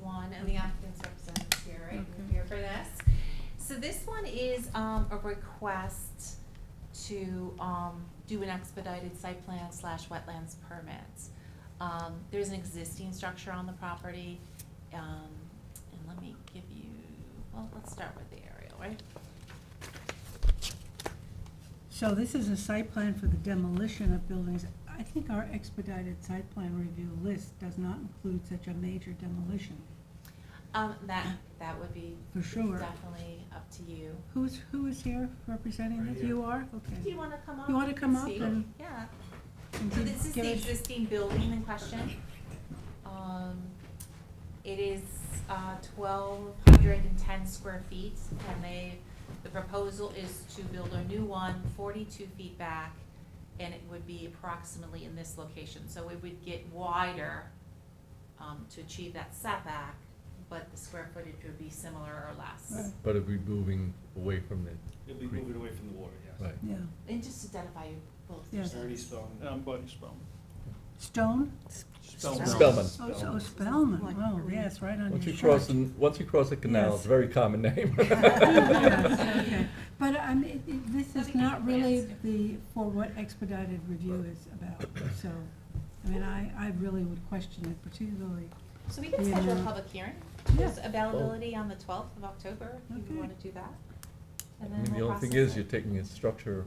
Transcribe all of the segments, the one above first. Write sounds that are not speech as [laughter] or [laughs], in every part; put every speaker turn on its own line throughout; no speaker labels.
one, and the applicant's representative's here, right?
Okay.
You're here for this. So this one is, um, a request to, um, do an expedited site plan slash wetlands permit. Um, there's an existing structure on the property, um, and let me give you, well, let's start with the aerial, right?
So this is a site plan for the demolition of buildings. I think our expedited site plan review list does not include such a major demolition,
Um, that, that would be
for sure.
definitely up to you.
Who's, who is here representing
Right
this?
here.
You are?
Do
Okay.
you wanna come up?
You wanna
and
come up
speak?
and-
Yeah.
And
So
give-
this is
give
the
us-
existing building in question. Um, it is, uh, twelve hundred and ten square feet, and they, the proposal is to build a new one, forty-two feet back, and it would be approximately in this location, so it would get wider, um, to achieve that setback, but the square footage would be similar or less.
Right.
But it'd be moving away from the,
It'll be
Creek.
moving away from the water, yes.
right.
Yeah.
And just identify you both.
Yes.
Ernie Spellman.
Oh.
Um, Buddy Spellman.
Stone?
Spellman.
Spellman.
Oh, so-
Spellman.
oh, Spellman.
Like
Oh,
green.
yes, right on your
Once you
shirt.
cross, the once you cross the canal, it's
Yes.
a very
[laughs]
common name. [laughs]
[laughs] Yes, okay. But I mean, it- it- this
Let
is
me
not
get
really
the answer.
the, for what expedited review is about, so, I mean, I, I really would question it particularly.
So we can schedule a
Yeah.
public hearing.
Yeah.
There's
Oh.
availability on the twelfth of October, if you
Okay.
wanna do that.
I
And then
mean, the
we'll
only thing
process
is,
it.
you're taking a structure,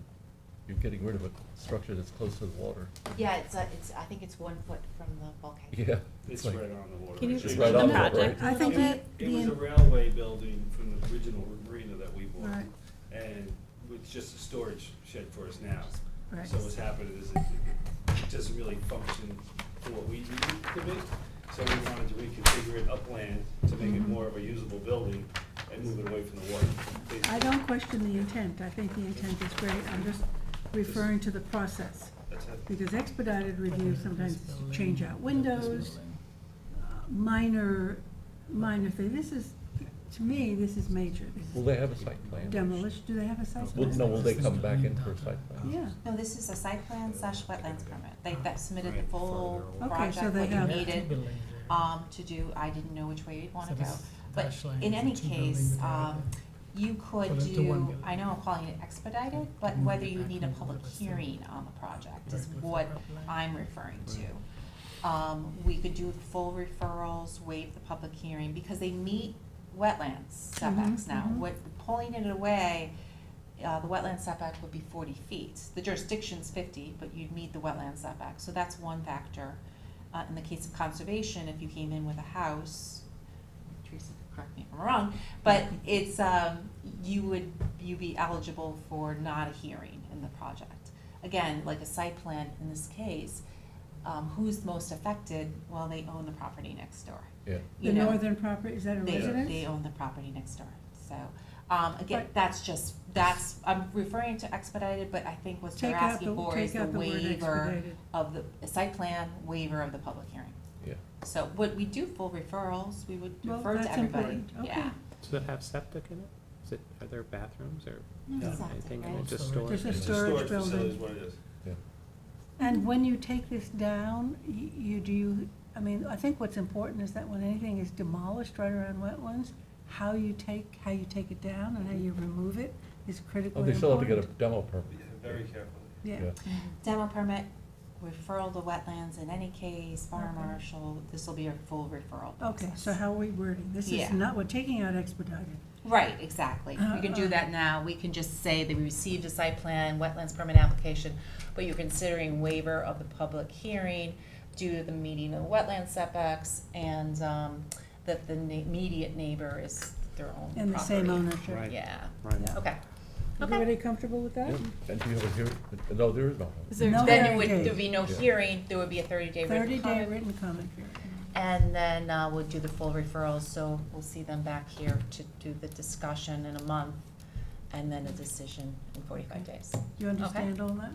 you're getting rid of a structure that's close to the water. [laughs]
Yeah, it's, uh, it's, I think it's one foot from the bulkhead.
Yeah.
It's
like-
right on the water.
Can you
It's
explain
right
the
on the
project
water.
a
I
little
think
bit?
that,
It was
the-
a railway building from the original marina that we bought.
Right.
And it's just a storage shed for us now.
Right.
So what's happened is it, it doesn't really function for what we need it to be. So we wanted to reconfigure it upland to make
Mm-hmm.
it more of a usable building and move it away from the water.
I don't question the intent, I think the intent is great, I'm just referring to the process.
That's it.
Because expedited review sometimes is to change out windows, uh, minor, minor thing, this is, to me, this is major, this
Will
is
they have a site plan?
demolition, do they have a site
Will,
plan?
no, will they come back in for a site plan?
Yeah,
No, this is a site plan slash wetlands permit. They, that submitted the full
Okay, so
project,
they
what you
have-
needed, um, to do. I didn't know which way you'd wanna go. But in any case, um, you could
Put it to one
do,
building.
I know I'm calling it expedited, but
Move
whether
it
you
back
need a
into
public
the same-
hearing on the project is
Right, with the
what
upline.
I'm referring to. Um, we could do full referrals, waive the public hearing, because they meet wetlands setbacks
Mhm,
now.
mhm.
What, pulling it away, uh, the wetland setback would be forty feet. The jurisdiction's fifty, but you'd meet the wetland setback, so that's one factor. Uh, in the case of conservation, if you came in with a house, Teresa, correct me if I'm wrong, but it's, um, you would, you'd be eligible for not a hearing in the project. Again, like a site plan in this case, um, who's most affected? Well, they own the property next door,
Yeah.
you
the
know?
northern property, is that a
They,
residence?
they own the property next door, so, um, again,
But-
that's just, that's, I'm referring to expedited, but I think what they're
Take out
asking
the,
for is
take
the
out the word
waiver
expedited.
of the, a site plan waiver of the public hearing.
Yeah.
So, would we do full referrals, we would
Well,
refer to
that's
everybody,
important.
yeah.
Okay.
Does it have septic in it? Is it, are there bathrooms or
No.
Exactly,
anything in
right.
it, just
Storage.
storage?
There's a
It's
storage
facility is
building.
what it is.
And when you take this down, y- you, do you, I mean, I think what's important is that when anything is demolished right around wetlands, how you take, how you take it down and how you remove it is
Oh,
critically
they
important.
still have to get a demo permit.
Very carefully.
Yeah,
Demo permit, referral to wetlands in any case, fire
Okay.
marshal, this will be a full referral
okay, so
process.
how are we wording? This is
Yeah.
not, we're taking out expedited.
Right, exactly. We can do
Uh-uh.
that now. We can just say that we received a site plan, wetlands permit application, but you're considering waiver of the public hearing due to the meeting of wetland setbacks and, um, that the na- immediate neighbor is their own property.
And the same ownership.
Right.
Yeah,
Right.
Yeah.
okay. Okay.
Everybody comfortable with that?
Yeah. And do you have a hearing? No, there is no.
Is there,
No
Then it
hearing
would,
date.
there'd be no
Yeah.
hearing, there would be a thirty-day
Thirty
written
day
comment.
written comment period.
And then, uh, we'll do the full referrals, so we'll see them back here to do the discussion in a month and then a decision in forty-five days.
Do you understand all that?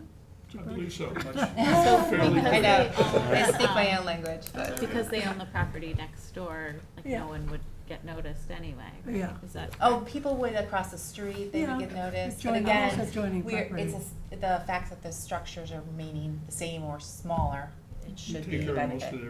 Jabari?
[laughs]
[laughs]
so.
So,
Fairly
I know,
quickly.
I speak my own language, but.
because they own the property next door, like
Yeah.
no one would get noticed anyway, right?
Yeah.
Is that?
Oh, people would across the street, they
Yeah.
would get noticed, but
Joining-
again,
also joining
we're,
property.
it's, a s- the fact that the structures are remaining the same or smaller, it should be
Take
a
care of most
benefit.
of their